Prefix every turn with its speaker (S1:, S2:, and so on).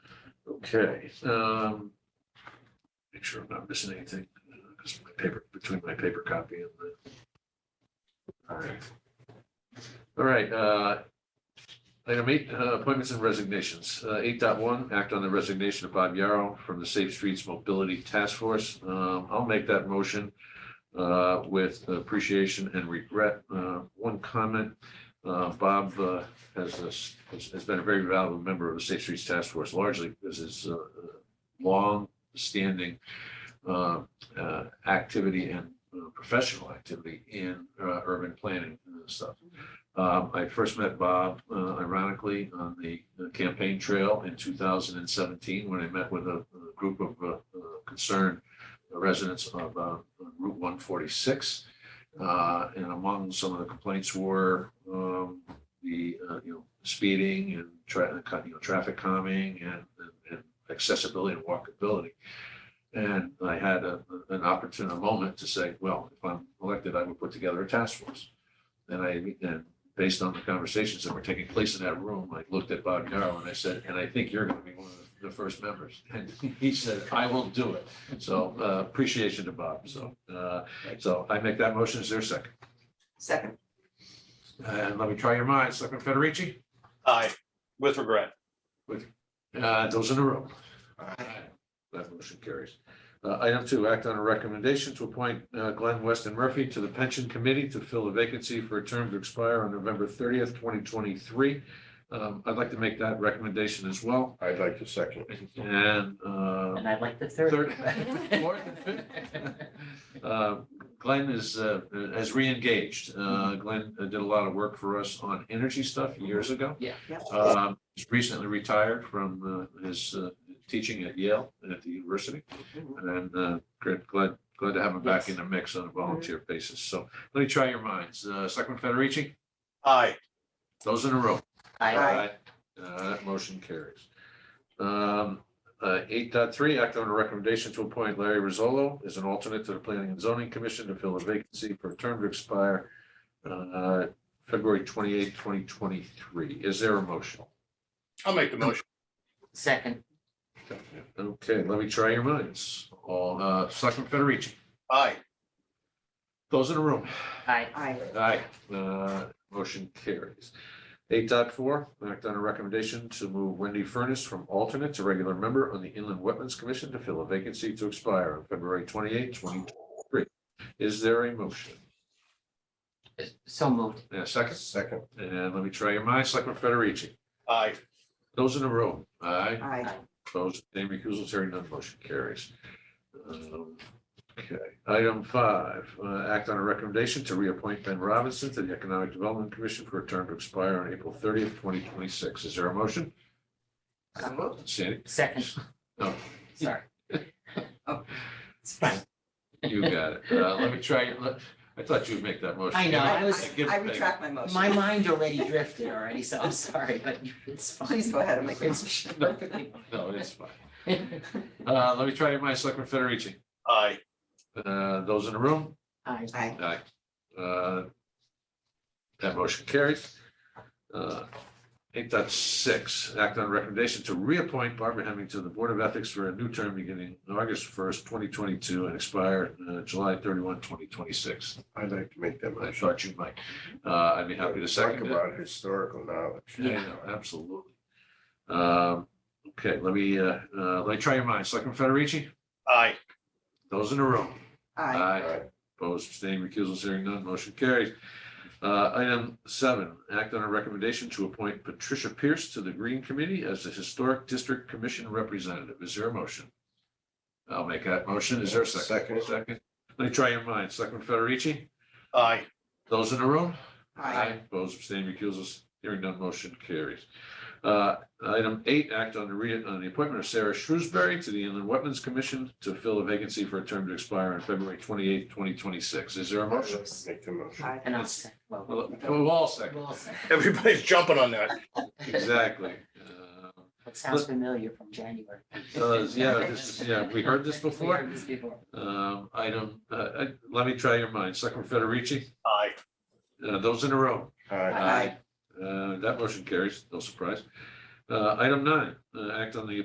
S1: Okay, um. Make sure I'm not missing anything, because my paper, between my paper copy and the. All right. All right, uh. Item eight, uh, appointments and resignations. Uh, eight dot one, act on the resignation of Bob Yarrow from the Safe Streets Mobility Task Force. Um, I'll make that motion. Uh, with appreciation and regret. Uh, one comment. Uh, Bob, uh, has, has has been a very valuable member of the Safe Streets Task Force largely because his uh, long-standing uh, uh, activity and uh, professional activity in uh, urban planning and stuff. Um, I first met Bob uh, ironically on the the campaign trail in 2017 when I met with a a group of uh, uh, concerned residents of uh, Route 146. Uh, And among some of the complaints were um, the, uh, you know, speeding and tra- uh, you know, traffic calming and, and accessibility and walkability. And I had a, an opportune moment to say, well, if I'm elected, I would put together a task force. And I, and based on the conversations that were taking place in that room, I looked at Bob Yarrow and I said, and I think you're gonna be one of the first members. And he said, I will do it. So uh, appreciation to Bob. So, uh, so I make that motion. Is there a second?
S2: Second,
S1: And let me try your minds. Selectman Federici?
S3: Aye, with regret.
S1: Uh, Those in a row. That motion carries. Uh, Item two, act on a recommendation to appoint uh, Glenn Weston Murphy to the Pension Committee to fill a vacancy for a term to expire on November thirtieth, twenty twenty-three. Um, I'd like to make that recommendation as well.
S4: I'd like to second.
S1: And uh,
S2: and I'd like the
S1: Third.
S2: third.
S1: Fourth and fifth. Uh, Glenn is, uh, has reengaged. Uh, Glenn uh, did a lot of work for us on energy stuff years ago.
S2: Yeah. Yep.
S1: Um, he's recently retired from, uh, his, uh, teaching at Yale and at the university. And, uh, great, glad, glad to have him back in the mix on a volunteer basis. So let me try your minds. Uh, Selectman Federici,
S3: Aye,
S1: those in a row.
S2: Aye.
S1: Uh, that motion carries. Um, uh, eight dot three, act on a recommendation to appoint Larry Rizzolo as an alternate to the Planning and Zoning Commission to fill a vacancy for a term to expire uh, February twenty-eighth, twenty twenty-three. Is there a motion?
S3: I'll make the motion.
S2: Second,
S1: Okay, let me try your minds. All, uh, Selectman Federici,
S3: Aye,
S1: those in the room?
S2: aye.
S5: Aye.
S1: Aye, uh, motion carries. Eight dot four, act on a recommendation to move Wendy Furnace from alternate to regular member on the Inland Wetlands Commission to fill a vacancy to expire on February twenty-eight, twenty twenty-three. Is there a motion?
S2: So moved.
S1: And a second,
S4: Second.
S1: and let me try your minds, Selectman Federici,
S3: aye,
S1: those in the room, aye?
S5: Aye.
S1: Opposed, name recusals, hearing none, motion carries. Um, Okay, item five, uh, act on a recommendation to reappoint Ben Robinson to the Economic Development Commission for a term to expire on April thirtieth, twenty twenty-six. Is there a motion? Sandy, Oh,
S2: Second.
S1: No.
S2: Sorry. It's fine.
S1: you got it. Uh, let me try, your- let- I thought you'd make that motion.
S2: I know, I was-
S1: give it
S5: I
S1: back.
S5: retract my motion.
S2: My mind already drifted already, so I'm sorry, but it's fine.
S5: Please go ahead and make the
S2: It's
S5: motion.
S2: Perfectly.
S1: No, it's fine.
S2: fine.
S1: Uh, let me try your mind, Selectman Federici.
S3: aye,
S1: Uh, those in the room?
S2: Aye.
S5: Aye.
S1: Aye. Uh, That motion carries. Uh, Eight dot six, act on recommendation to reappoint Barbara Hemming to the Board of Ethics for a new term beginning August first, twenty twenty-two and expire uh, July thirty-one, twenty twenty-six.
S4: I'd like to make that
S1: I
S4: motion.
S1: thought you might. Uh, I'd be happy to second
S4: Talk
S1: it.
S4: about historical knowledge.
S1: Yeah, I know, absolutely. Um, Okay, let me, uh, uh, let me try your minds. Selectman Federici,
S3: aye,
S1: those in the room?
S5: Aye.
S1: Opposed, abstaining, recusals, hearing none, motion carries. Uh, Item seven, act on a recommendation to appoint Patricia Pierce to the Green Committee as the Historic District Commission Representative. Is there a motion? I'll make that motion. Is there a second?
S4: Second.
S1: Second. Let me try your minds. Selectman Federici,
S3: aye,
S1: those in the room?
S5: Aye.
S1: Opposed, abstaining, recusals, hearing none, motion carries. Uh, Item eight, act on the re, on the appointment of Sarah Shrewsbury to the Inland Wetlands Commission to fill a vacancy for a term to expire on February twenty-eighth, twenty twenty-six. Is there a
S4: I'd like
S1: motion?
S4: to Make the motion.
S5: Aye.
S2: And I'll second. Well,
S1: Well, We'll all second,
S2: we'll all second.
S3: everybody's jumping on that.
S1: exactly. Uh,
S2: It sounds familiar from January.
S1: It does, yeah, this is, yeah, we heard this
S2: We
S1: before.
S2: heard this before.
S1: Um, Item, uh, uh, let me try your mind, Selectman Federici,
S3: Aye,
S1: uh, those in a row.
S4: Aye.
S5: Aye.
S1: Uh, That motion carries, no surprise. Uh, Item nine, uh, act on the